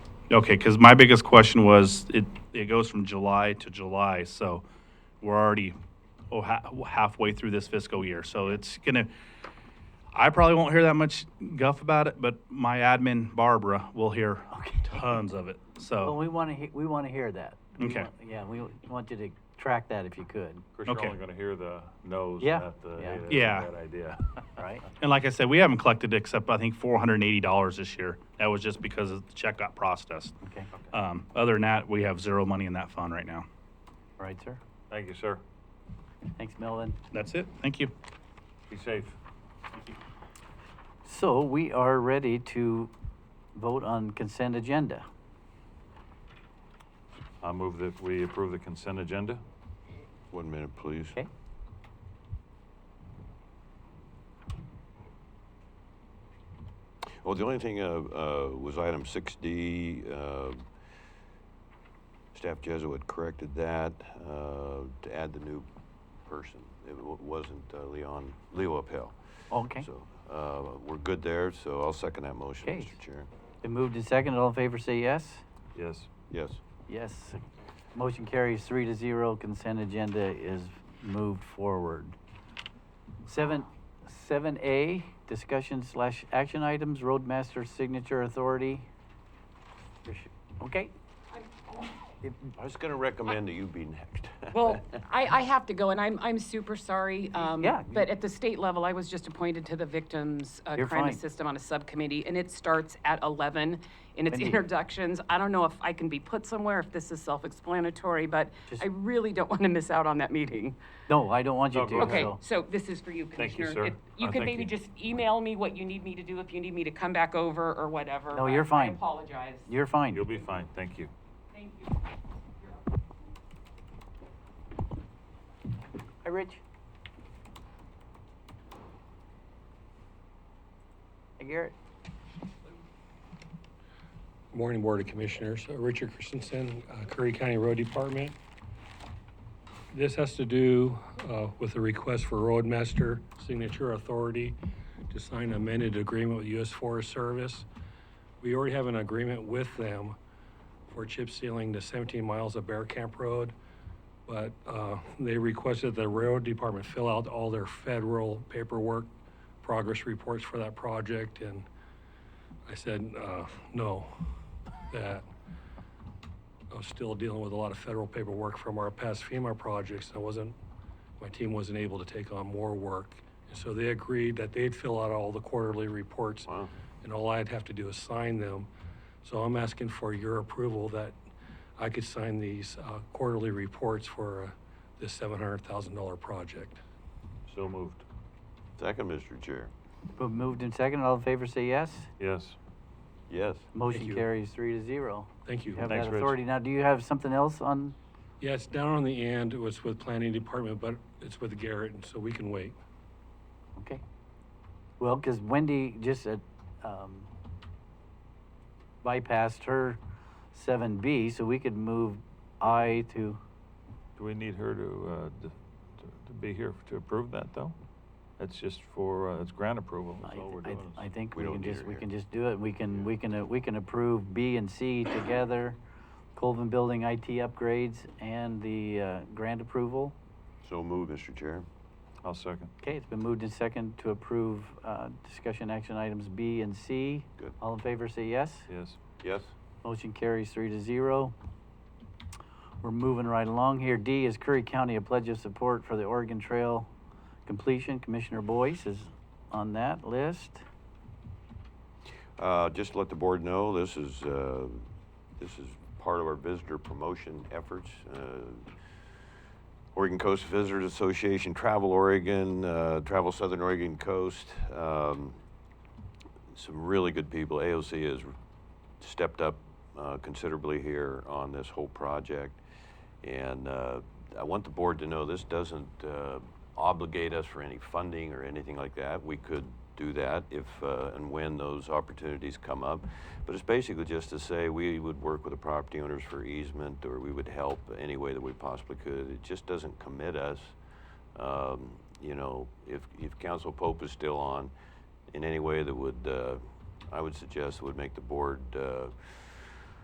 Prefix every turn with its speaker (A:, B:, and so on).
A: Okay, because my biggest question was, it, it goes from July to July, so we're already oh, ha- halfway through this fiscal year. So it's gonna, I probably won't hear that much guff about it, but my admin Barbara will hear tons of it,
B: Well,
A: so.
B: we want to, we want to hear that. We
A: Okay.
B: want- Yeah, we want you to track that if you could,
C: Of course, you're
A: Okay.
C: only gonna hear the no's,
B: Yeah,
C: not the,
B: yeah.
C: hey, that's a
A: Yeah.
C: bad idea.
B: right?
A: And like I said, we haven't collected except, I think, four hundred and eighty dollars this year. That was just because the check got processed.
B: Okay,
A: Um, other than that, we have zero money in that fund right now.
B: all right, sir.
C: Thank you, sir.
B: Thanks, Melvin.
A: That's it, thank you.
C: Be safe.
B: So we are ready to vote on consent agenda.
C: I move that we approve the consent agenda.
D: One minute, please.
B: Okay?
D: Oh, the only thing uh, uh, was item 6D. uh, Staff Jesuit corrected that uh, to add the new person. It wa- wasn't uh, Leon, Leo Appel.
B: Okay.
D: So uh, we're good there, so I'll second that motion,
B: Okay.
D: Mr. Chair.
B: Been moved and seconded. All in favor, say yes.
C: Yes.
D: Yes.
B: Yes. Motion carries three to zero. Consent agenda is moved forward. Seven, seven A, discussion slash action items, roadmaster signature authority. Okay?
D: I was going to recommend that you be next.
E: Well, I, I have to go, and I'm, I'm super sorry. um,
B: Yeah.
E: But at the state level, I was just appointed to the Victims uh,
B: You're
E: Crime
B: fine.
E: System on a subcommittee, and it starts at 11 in its
B: Mindy.
E: introductions. I don't know if I can be put somewhere, if this is self-explanatory, but
B: Just-
E: I really don't want to miss out on that meeting.
B: No, I don't want you
C: No,
B: to.
C: go ahead.
E: Okay,
B: so-
E: so this is for you,
C: Thank you,
E: Commissioner.
C: sir.
E: If
C: Uh,
E: You could
C: thank
E: maybe
C: you.
E: just email me what you need me to do, if you need me to come back over or whatever.
B: No,
E: but
B: you're fine.
E: I apologize.
B: You're fine.
C: You'll be fine. Thank you.
E: Thank you.
B: Hi, Rich. Hey, Garrett.
F: Morning, Board of Commissioners. Uh, Richard Christensen, uh, Curry County Road Department. This has to do uh, with a request for Roadmaster Signature Authority to sign an amended agreement with U.S. Forest Service. We already have an agreement with them for chip sealing the 17 miles of Bear Camp Road, but uh, they requested the Railroad Department fill out all their federal paperwork, progress reports for that project, and I said, uh, no, that I was still dealing with a lot of federal paperwork from our past FEMA projects. I wasn't, my team wasn't able to take on more work. And so they agreed that they'd fill out all the quarterly reports
D: Wow.
F: and all I'd have to do is sign them. So I'm asking for your approval that I could sign these uh, quarterly reports for uh, this $700,000 project.
C: So moved.
D: Second, Mr. Chair.
B: Bo- Moved and seconded. All in favor, say yes.
C: Yes.
D: Yes.
B: Motion
F: you.
B: carries three to zero.
F: Thank you.
B: You have
C: Thanks,
B: that
C: Rich.
B: authority. Now, do you have something else on?
F: Yeah, it's down on the end. It was with planning department, but it's with Garrett, and so we can wait.
B: Okay. Well, because Wendy just uh, um, bypassed her seven B, so we could move I to,
C: Do we need her to, uh, d- to- to be here to approve that, though? That's just for, uh, it's grant approval.
B: I
C: That's all we're
B: I-
C: doing. is-
B: I think
D: We
B: we
D: don't
B: can
D: need
B: just,
D: her
B: we
D: here.
B: can just do it. We can, we can, uh, we can approve B and C together. Colvin Building IT upgrades and the uh, grant approval.
D: So moved, Mr. Chair.
C: I'll second.
B: Okay, it's been moved and second to approve uh, discussion action items B and C.
D: Good.
B: All in favor, say yes.
C: Yes.
D: Yes.
B: Motion carries three to zero. We're moving right along here. D is Curry County, a pledge of support for the Oregon Trail completion. Commissioner Boyce is on that list.
D: Uh, Just to let the board know, this is, uh, this is part of our visitor promotion efforts. Uh, Oregon Coast Visitors Association, Travel Oregon, uh, Travel Southern Oregon Coast. um, Some really good people. AOC has stepped up uh, considerably here on this whole project. And uh, I want the board to know this doesn't uh, obligate us for any funding or anything like that. We could do that if uh, and when those opportunities come up. But it's basically just to say we would work with the property owners for easement or we would help any way that we possibly could. It just doesn't commit us. Um, you know, if, if Council Pope is still on, in any way that would, uh, I would suggest would make the board uh,